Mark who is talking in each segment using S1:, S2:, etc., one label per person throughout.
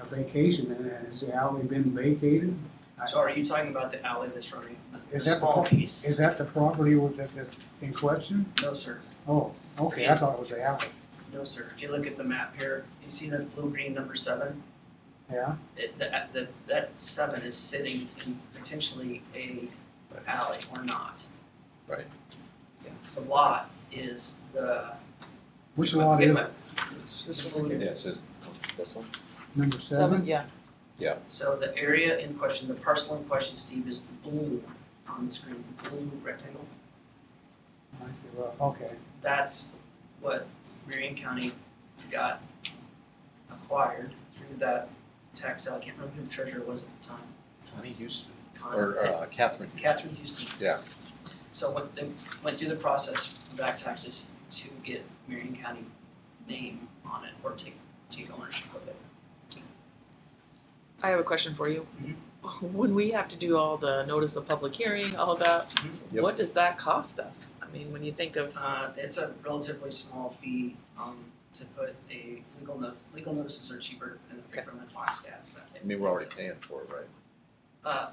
S1: a vacation, and has the alley been vacated?
S2: So are you talking about the alley that's running? The
S1: Is that the
S2: small
S1: pro-
S2: piece?
S1: Is that the property with, that, that's in question?
S2: No, sir.
S1: Oh, okay, I thought it was the alley,
S2: No, sir. If you look at the map here, you see that blue green number seven?
S1: yeah?
S2: It, that, that, that seven is sitting in potentially a alley or not.
S3: Right.
S2: Yeah. The lot is the.
S1: Which lot is it?
S2: This blue-
S3: Yeah, it says, this one?
S1: number
S4: Seven,
S1: seven?
S4: yeah,
S2: So the area in question, the parcel in question, Steve, is the blue on the screen, the blue rectangle.
S1: I see, well, okay,
S2: That's what Marion County got acquired through that tax sale. I can't remember who the treasurer was at the time.
S3: Connie Houston,
S2: Con-
S3: or uh, Catherine. Houston.
S2: Catherine Houston.
S3: Yeah.
S2: So went, they went through the process of back taxes to get Marion County name on it or take, take ownership of it.
S4: I have a question for you.
S3: Mm-hmm.
S4: When we have to do all the notice of public hearing, all that,
S3: Mm-hmm. Yep.
S4: what does that cost us? I mean, when you think of,
S2: Uh, it's a relatively small fee, um, to put a legal notice, legal notices are cheaper than the paper and file stats, that
S3: I
S2: type.
S3: mean, we're already paying for it, right?
S2: Uh,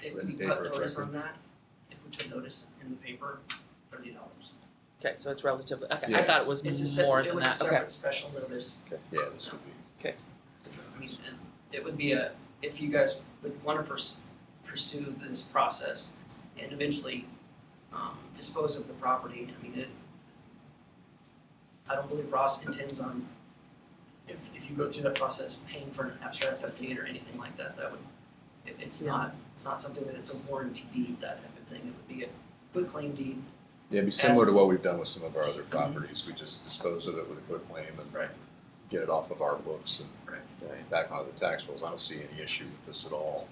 S2: if we
S3: Written
S2: put
S3: paper,
S2: notice
S3: correct.
S2: on that, if we put notice in the paper, thirty dollars.
S4: okay, so it's relatively, okay, I
S3: Yeah.
S4: thought it was
S2: It's a
S4: more
S2: separate, it
S4: than
S2: was a
S4: that, okay.
S2: separate special notice,
S3: Yeah, this would be.
S2: I mean, and it would be a, if you guys would wanna pers- pursue this process and eventually, um, dispose of the property, I mean, it, I don't believe Ross intends on, if, if you go through that process, paying for an abstract of deed or anything like that, that would, it, it's
S4: Yeah.
S2: not, it's not something that it's a warranty deed, that type of thing, it would be a quick claim deed,
S3: Yeah, it'd be similar to what we've done with some of our other properties. We just dispose of it with a quick claim and
S2: Right.
S3: get it off of our books
S2: Right.
S3: and back onto the tax rolls. I don't see any issue with this at all.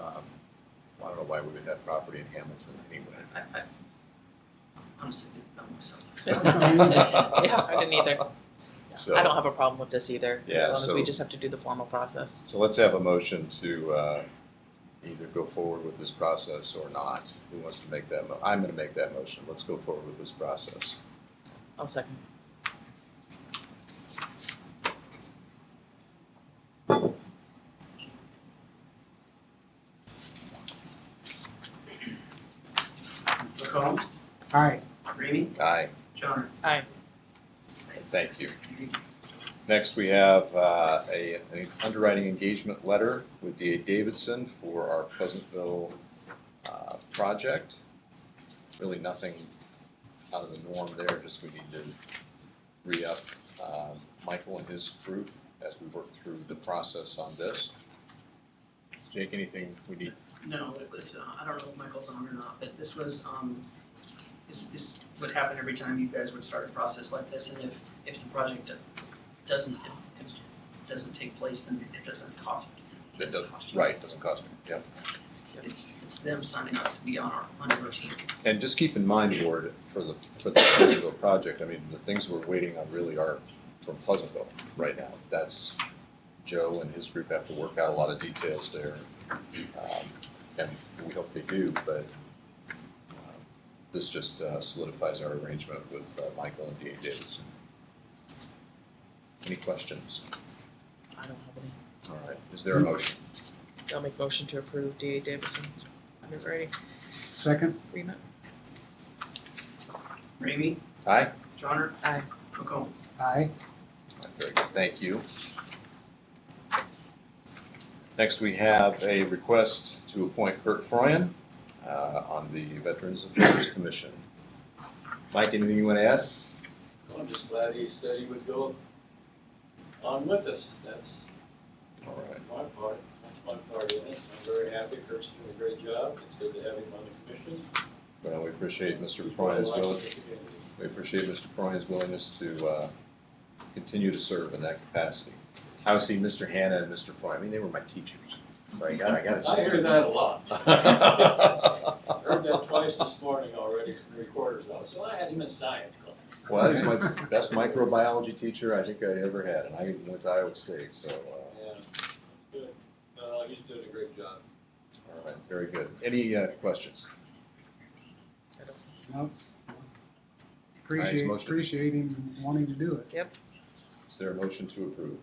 S3: Um, I don't know why we would have property in Hamilton anyway.
S2: I, I, honestly, I'm myself.
S4: Yeah, I didn't either.
S3: So-
S4: I don't have a problem with this either,
S3: Yeah,
S4: as long as we
S3: so-
S4: just have to do the formal process.
S3: So let's have a motion to uh, either go forward with this process or not. Who wants to make that? mo- I'm going to make that motion. Let's go forward with this process.
S4: I'll second.
S2: McCollum,
S1: aye,
S2: Ramey,
S3: Aye.
S2: Johnner.
S4: Aye.
S3: Thank you. Next, we have uh, a, an underwriting engagement letter with DA Davidson for our Pleasantville uh, project. Really nothing out of the norm there, just we need to re-up um, Michael and his group as we work through the process on this. Jake, anything we need?
S2: No, it was, uh, I don't know if Michael's on or not, but this was, um, this, this would happen every time you guys would start a process like this, and if, if the project do- doesn't, if- if doesn't take place, then it doesn't cost. it
S3: That does,
S2: cost you.
S3: right, doesn't cost me, yeah.
S2: It's, it's them signing us to be on our, on our team.
S3: And just keep in mind, Ward, for the, for the Pleasantville project, I mean, the things we're waiting on really are from Pleasantville right now. That's, Joe and his group have to work out a lot of details there. um, And we hope they do, but uh, this just uh, solidifies our arrangement with uh, Michael and DA Davidson. Any questions?
S4: I don't have any.
S3: All right, is there a motion?
S4: I'll make motion to approve DA Davidson's underwriting
S1: second,
S4: agreement.
S2: Ramey,
S3: Aye?
S2: Johnner,
S4: Aye.
S2: McCollum.
S1: aye,
S3: Very good, thank you. Next, we have a request to appoint Kurt Froyen uh, on the Veterans Affairs Commission. Mike, anything you want to add?
S5: I'm just glad he said he would go on with us. That's
S3: All right,
S5: my part, that's my part in it. I'm very happy, Kurt's doing a great job. It's good to have him on the commission.
S3: well, we appreciate Mr.
S5: I
S3: Froyen's
S5: like
S3: will,
S5: the community.
S3: we appreciate Mr. Froyen's willingness to uh, continue to serve in that capacity. Obviously, Mr. Hannah and Mr. Froyen, I mean, they were my teachers, so I got, I got to
S5: I
S3: say.
S5: hear that a lot.
S3: that.
S5: Heard that twice this morning already from the recorder's office. Well, I had him in science class.
S3: Well, he's my best microbiology teacher I think I ever had, and I even went to Iowa State, so, uh,
S5: Yeah, good. No, he's doing a great job.
S3: all right, very good. Any uh, questions?
S4: I don't-
S1: no. Appreciate,
S3: motion.
S1: appreciate him wanting to do it,
S3: Is there a motion to approve?